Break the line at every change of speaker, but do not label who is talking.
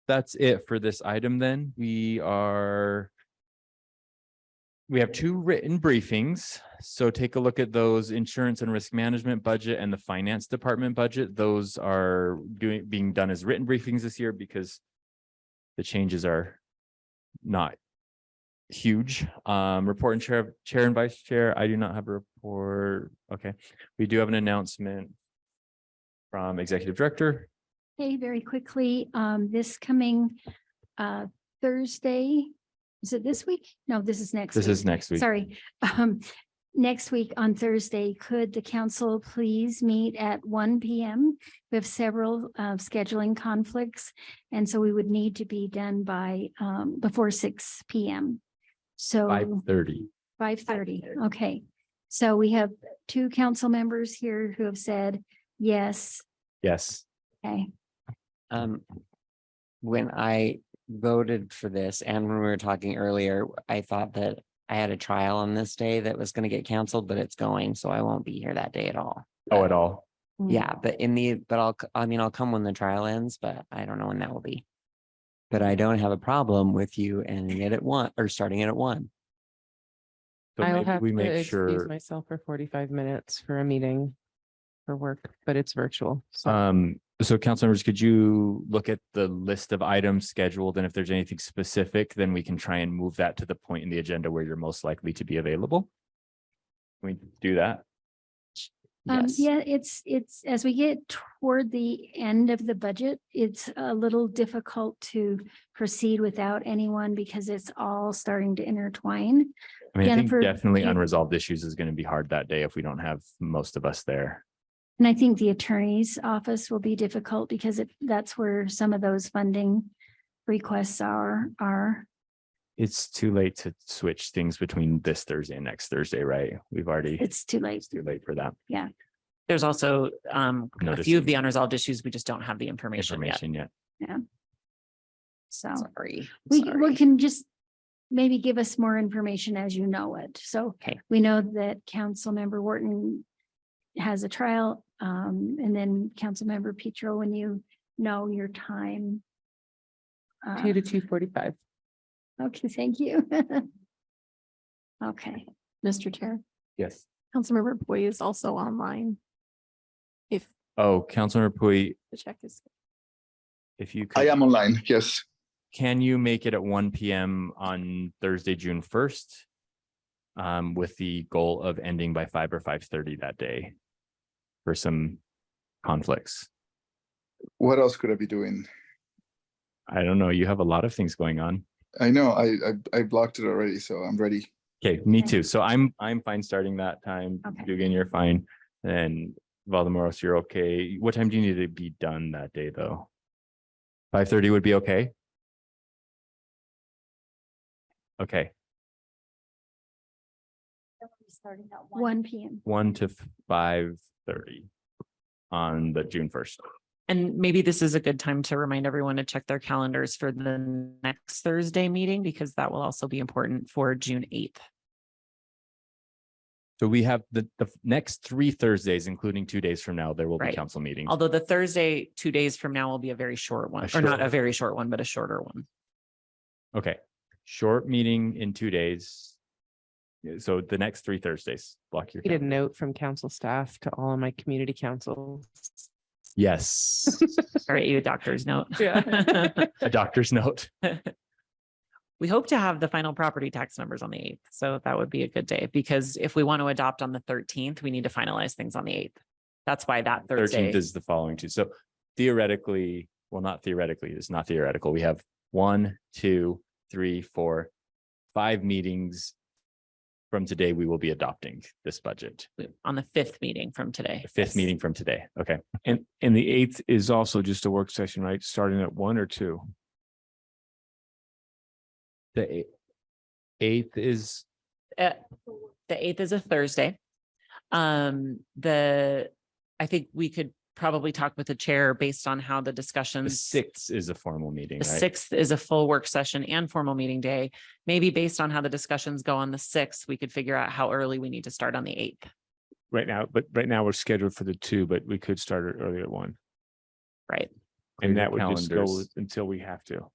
that's it for this item then. We are we have two written briefings, so take a look at those insurance and risk management budget and the finance department budget. Those are doing, being done as written briefings this year because the changes are not huge. Um, report and chair, chair and vice chair, I do not have a report. Okay, we do have an announcement from executive director.
Hey, very quickly, um, this coming, uh, Thursday, is it this week? No, this is next.
This
week.
is next week.
Sorry. Um, next week on Thursday, could the council please meet at one P M? We have several, uh, scheduling conflicts, and so we would need to be done by, um, before six P M.
Five
So
thirty.
five thirty, okay. So we have two council members here who have said yes,
Yes.
okay. Mm.
Um, when I voted for this and when we were talking earlier, I thought that I had a trial on this day that was gonna get canceled, but it's going, so I won't be here that day at all.
Oh,
Uh,
at all.
Yeah,
Mm.
but in the, but I'll, c- I mean, I'll come when the trial ends, but I don't know when that will be. But I don't have a problem with you ending it at one or starting it at one.
So
I'll
maybe
have
we
to
make
excuse
sure,
myself for forty-five minutes for a meeting for work, but it's virtual. So
um, so council members, could you look at the list of items scheduled? And if there's anything specific, then we can try and move that to the point in the agenda where you're most likely to be available. Can We do that.
Um,
Yes.
yeah, it's, it's, as we get toward the end of the budget, it's a little difficult to proceed without anyone because it's all starting to intertwine.
I mean, I think
Jennifer,
definitely
you-
unresolved issues is going to be hard that day if we don't have most of us there.
And I think the attorney's office will be difficult because it, that's where some of those funding requests are, are.
It's too late to switch things between this Thursday and next Thursday, right? We've already,
It's too late.
it's too late for that
There's also um a
Notice
few
it.
of the unresolved issues. We just don't have the information yet.
information yet.
So
Sorry.
Oh. we,
sorry.
we can just maybe give us more information as you know it. So
Okay.
we know that Councilmember Wharton has a trial, um, and then Councilmember Petro, when you know your time. uh,
two to two forty-five.
Okay, thank you. Okay,
Mr. Chair,
Yes.
Councilmember Boy is also online. If
Oh, Councilmember Pui,
the check is.
if you. could-
I am online, yes.
Can you make it at one PM on Thursday, June first? Um, with the goal of ending by five or five thirty that day for some conflicts.
What else could I be doing?
I don't know. You have a lot of things going on.
I know I I, I blocked it already, so I'm ready.
Okay, me
Okay.
too. So I'm, I'm fine starting that time.
Okay.
Dugan, you're fine. And Valdemaros, you're okay. What time do you need to be done that day, though? Five thirty would be okay? Okay.
one PM.
one to five thirty on the June first.
And maybe this is a good time to remind everyone to check their calendars for the next Thursday meeting because that will also be important for June eighth.
So we have the, the f- next three Thursdays, including two days from now, there will be
Right.
council meetings.
Although the Thursday, two days from now will be a very short one, or
short
not a
one.
very short one, but a shorter one.
Okay, short meeting in two days. Yeah, So the next three Thursdays, block your.
I Get a
calendar.
note from council staff to all of my community councils.
Yes,
All right, you a doctor's note.
Yeah.
a doctor's note.
We hope to have the final property tax numbers on the eighth, so that would be a good day, because if we want to adopt on the thirteenth, we need to finalize things on the eighth. That's why that Thursday,
Thirteenth is the following two. So theoretically, well, not theoretically, it's not theoretical. We have one, two, three, four, five meetings. From today, we will be adopting this budget.
on the fifth meeting from today.
The fifth
Yes.
meeting from today. Okay.
And, and the eighth is also just a work session, right? Starting at one or two?
The eight- eighth is,
Uh, The eighth is a Thursday. Um, the, I think we could probably talk with the chair based on how the
the
discussions.
sixth is a formal meeting,
The
right?
sixth is a full work session and formal meeting day. Maybe based on how the discussions go on the sixth, we could figure out how early we need to start on the eighth.
Right now, but right now we're scheduled for the two, but we could start it earlier at one. And
your
that would just go
calendars.
until we have to.